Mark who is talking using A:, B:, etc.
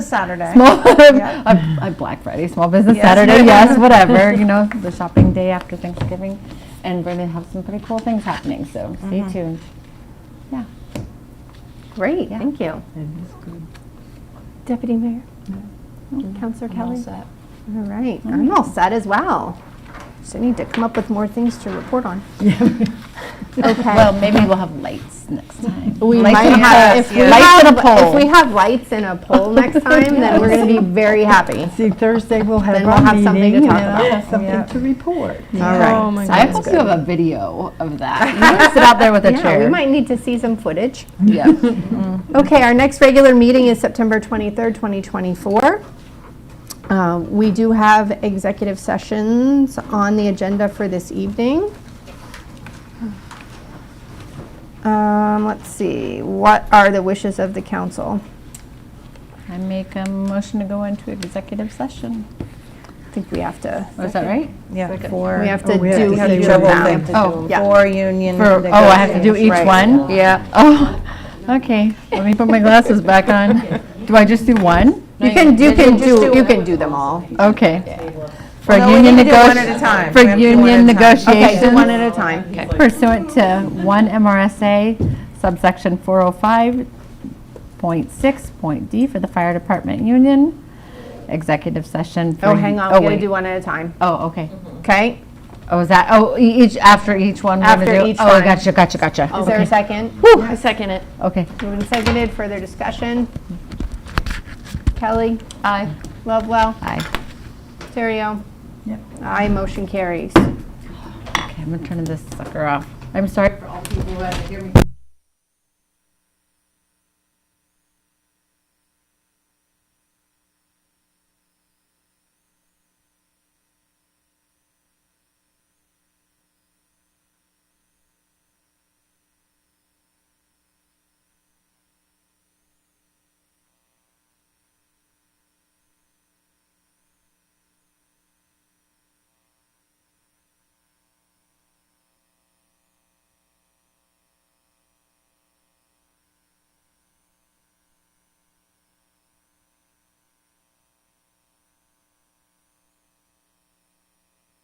A: Saturday.
B: Small,
A: Yeah.
B: I, I Black Friday, Small Business
A: Yes.
B: Saturday, yes, whatever, you know, the shopping day after Thanksgiving. And we're going to have some pretty cool things happening, so stay
C: Mm-hmm.
B: tuned. Yeah.
C: Great,
B: Yeah.
C: thank you. Deputy Mayor? Oh,
D: Mm-hmm.
C: Counselor Kelly? All right, I'm all set as well. So I need to come up with more things to report on.
B: Well, maybe we'll have lights next time.
C: We
B: Lights
C: might
B: and
C: have,
B: lights.
C: if we
B: Lights
C: have,
B: and a
C: if
B: pole.
C: we have lights and a pole next time, then we're gonna be very happy.
D: See, Thursday we'll have
C: Then we'll
D: our
C: have something to
D: meeting and
C: talk
D: I'll
C: about.
D: have something to report.
C: All right.
B: I hope you have a video of that. You wanna sit out there with a
C: Yeah, we
B: chair.
C: might need to see some footage.
B: Yeah.
C: Okay, our next regular meeting is September 23rd, 2024. Uh, We do have executive sessions on the agenda for this evening. Um, Let's see, what are the wishes of the council?
B: I make a motion to go into executive session.
C: I think we have to,
B: Oh, is that right?
A: Yeah.
C: we
A: For,
C: have to
D: we have to
C: do
D: do
C: each of
D: several
C: them.
D: things.
B: Oh,
C: Yeah.
A: for union.
B: for, oh, I have to do each
A: negotiations, right.
B: one? Yeah. Oh, okay. Let me put my glasses back on. Do I just do one?
C: You can, you can do, you can do them all.
B: Okay. For
A: No, we
B: union
A: need to do one at a
B: negotiations.
A: time.
B: For
A: We have to do one
B: union
A: at a time. Okay,
C: Okay, do
B: negotiations
C: one at a time.
B: pursuant to 1 MRSA subsection 405.6.d for the fire department union, executive session for.
C: Oh, hang on,
B: oh,
C: we gotta
B: wait.
C: do one at a time,
B: Oh, okay.
C: okay?
B: Oh, is that, oh, e- each, after each one? we're gonna
C: After
B: do-
C: each
B: Oh,
C: one.
B: gotcha, gotcha, gotcha.
C: Is there a second?
B: Whew,
E: Second it.
B: Okay.
C: Moving seconded, further discussion? Kelly?
B: Aye.
C: Lovewell?
B: Aye.
C: Terrio?
D: Yep.
C: Aye, motion carries.
B: Okay, I'm gonna turn this sucker off. I'm sorry for all people who had to hear me.